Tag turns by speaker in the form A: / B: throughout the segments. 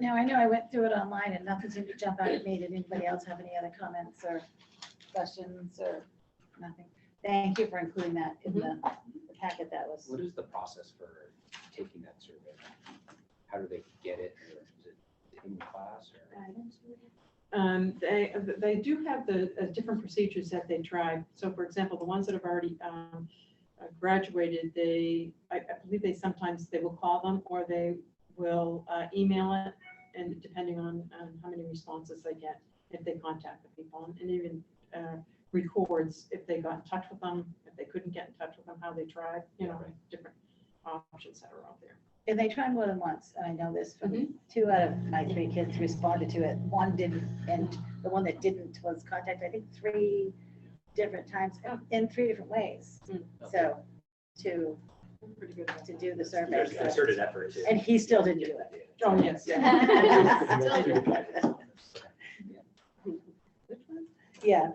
A: Now, I know I went through it online and nothing seemed to jump out at me. Did anybody else have any other comments or questions or nothing? Thank you for including that in the the
B: Mm-hmm.
A: packet that was.
C: What is the process for taking that survey? How do they get it? Or is it in class or?
B: Um, they, they do have the uh, different procedures that they try. So for example, the ones that have already um, uh, graduated, they, I I believe they sometimes, they will call them or they will uh, email it. And depending on um, how many responses they get, if they contact the people and even uh, records if they got in touch with them, if they couldn't get in touch with them, how they tried, you know, different options that are out there.
A: And they tried more than once, and I know this
B: Mm-hmm.
A: from two out of my three kids responded to it. One didn't, and the one that didn't was contacted, I think, three different times and in three different ways.
B: Mm.
A: So to,
B: Pretty good.
A: to do the survey.
D: There's
A: so-
D: concerted effort to.
A: And he still didn't do it.
B: Oh, yes.
A: Which one? Yeah.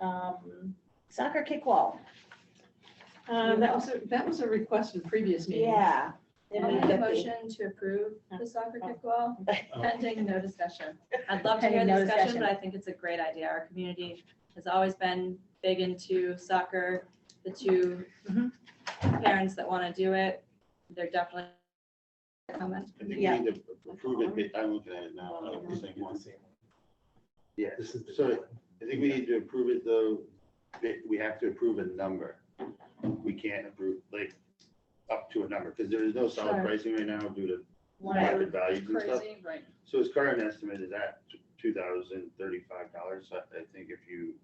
A: Um, Soccer kickwall,
B: Uh, That was, a that was a request in previous meetings.
A: yeah.
E: I make a motion to approve the soccer kickball pending no discussion. I'd love to hear
A: Pending
E: the
A: no
E: discussion,
A: discussion.
E: but I think it's a great idea. Our community has always been big into soccer. The two
A: Mhm.
E: parents that want to do it, they're definitely coming.
F: I think we
A: Yeah.
F: need to approve it, ba- I'm looking at it now, I uh, don't think once. Yeah,
D: This is the.
F: so I think we need to approve it though, that we have to approve a number. We can't approve, like, up to a number, because there is no solid
E: Sure.
F: pricing right now due to
A: Right.
F: market values and stuff.
E: Crazy, right?
F: So his current estimate is at two thousand thirty-five dollars, I, I think if you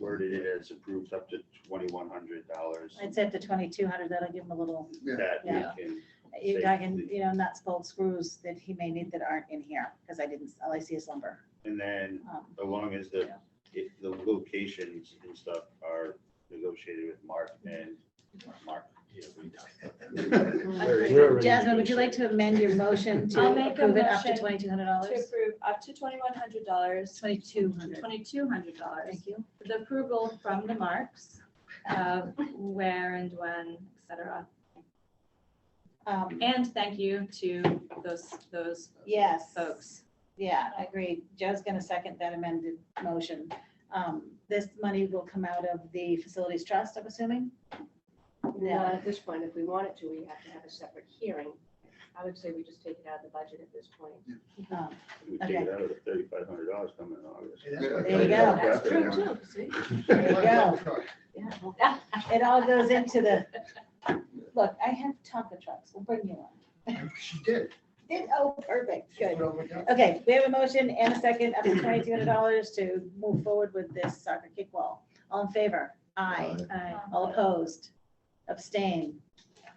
F: worded it as approved up to twenty-one hundred dollars.
A: I'd say up to twenty-two hundred, that'll give him a little,
F: That we
A: Yeah.
F: can,
A: you know, I can, you know, nuts, bolts, screws that he may need that aren't in here, because I didn't, all I see is lumber.
F: and then
A: Um,
F: as long as the,
E: Yeah.
F: if the locations and stuff are negotiated with Mark and Mark. you know, we talked about that.
A: Jasmine, would you like to amend your motion to
E: I'll make a
A: approve it up to
E: motion
A: twenty-two hundred
E: To
A: dollars?
E: approve up to twenty-one hundred dollars,
A: Twenty-two hundred.
E: twenty-two hundred dollars.
A: Thank you.
E: the approval from the marks of where and when, et cetera.
A: Um,
E: And thank you to those, those
A: Yes.
E: folks.
A: Yeah, I agree. Joe's gonna second that amended motion. Um, this money will come out of the facilities trust, I'm assuming?
G: Not at this point, if we wanted to, we have to have a separate hearing. I would say we just take it out of the budget at this point.
A: Um,
F: We take it out of the thirty-five hundred dollars coming in August.
A: There you go.
E: That's true
F: Yeah.
E: too. See?
A: There you go. It all goes into the, look, I have Tonka trucks. We'll bring you one.
H: She did.
A: Did- Oh, perfect,
H: She
A: good.
H: put over that.
A: Okay, we have a motion and a second up to twenty-two hundred dollars to move forward with this soccer kickball. All in favor? Aye.
E: Aye.
A: All opposed? Abstain?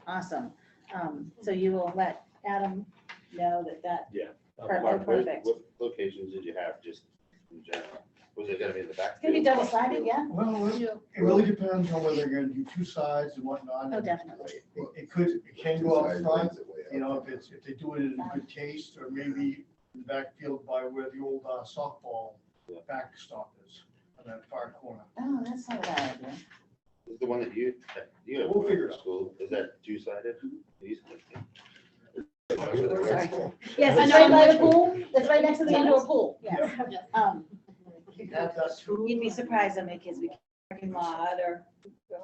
A: Awesome. Um, So you will let Adam know that that, Perfect,
F: Mark, what-
A: perfect.
F: What locations did you have just in general? Was it gonna be in the back?
A: it's gonna be double sided, yeah?
H: Well, it it really depends on whether they're gonna do two sides and whatnot.
A: Oh, definitely.
H: It- It could, it can go out front, you know, if it's, if they do it in good taste, or maybe in the backfield by where the old uh, softball
F: Yeah.
H: backstop is, on that far corner.
A: Oh, that's not a bad idea.
F: Is the one that you, that you have
H: We'll figure
F: at
H: it out. Mm-hmm.
F: school, is that two-sided? These-
A: Yes,
H: I
A: it's
H: know.
A: right by the pool. It's right next to the indoor pool, yes.
E: Yes.
A: Um,
H: That's who-
A: You'd be surprised how many kids we parking lot or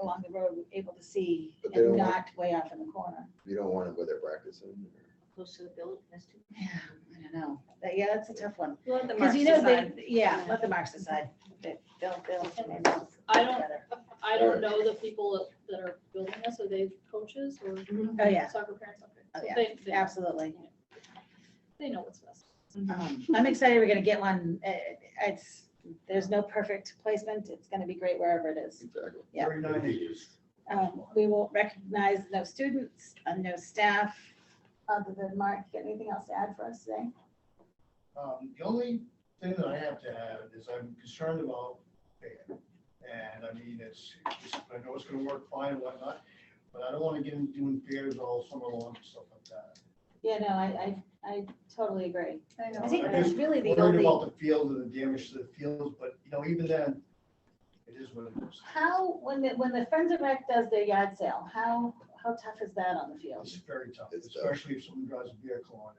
A: along the road were able to see
I: But they
A: and
I: don't want-
A: not way off in the corner.
I: You don't want it where they're practicing.
G: Close to the building, that's too.
A: Yeah, I don't know. That- Yeah, that's a tough one.
E: We'll let the
A: Because
E: marks
A: you know, they,
E: decide.
A: yeah, let the marks decide. They- They'll, they'll.
J: I don't-
A: together.
J: I don't know the people that are building this, are they coaches or
G: Mm-hmm.
A: Oh, yeah,
J: soccer parents? Okay.
A: Oh,
J: So
A: yeah.
J: They, they,
A: absolutely.
J: they know what's best.
A: Um, I'm excited we're gonna get one. Uh, It's, there's no perfect placement. It's gonna be great wherever it is.
I: Exactly.
A: Yeah.
H: Very nice.
A: Um, We will recognize no students, uh, no staff, other than Mark. You got Anything else to add for us today?
H: Um, the only thing that I have to add is I'm concerned about band. And I mean, it's, it's- I know it's gonna work fine and whatnot, but I don't wanna get into doing fairs all summer long and stuff like that.
A: Yeah, no, I, I, I totally agree.
E: I know.
A: I think
H: I'm
A: that's
H: just
A: really the
H: Worried
A: only,
H: about the field and the damage to the fields, but you know, even then, it is what it is.
A: how, when the, when the Friends of Rec does their yard sale, how, how tough is that on the field?
H: It's very tough,
I: It's tough.
H: especially if someone drives a vehicle on it.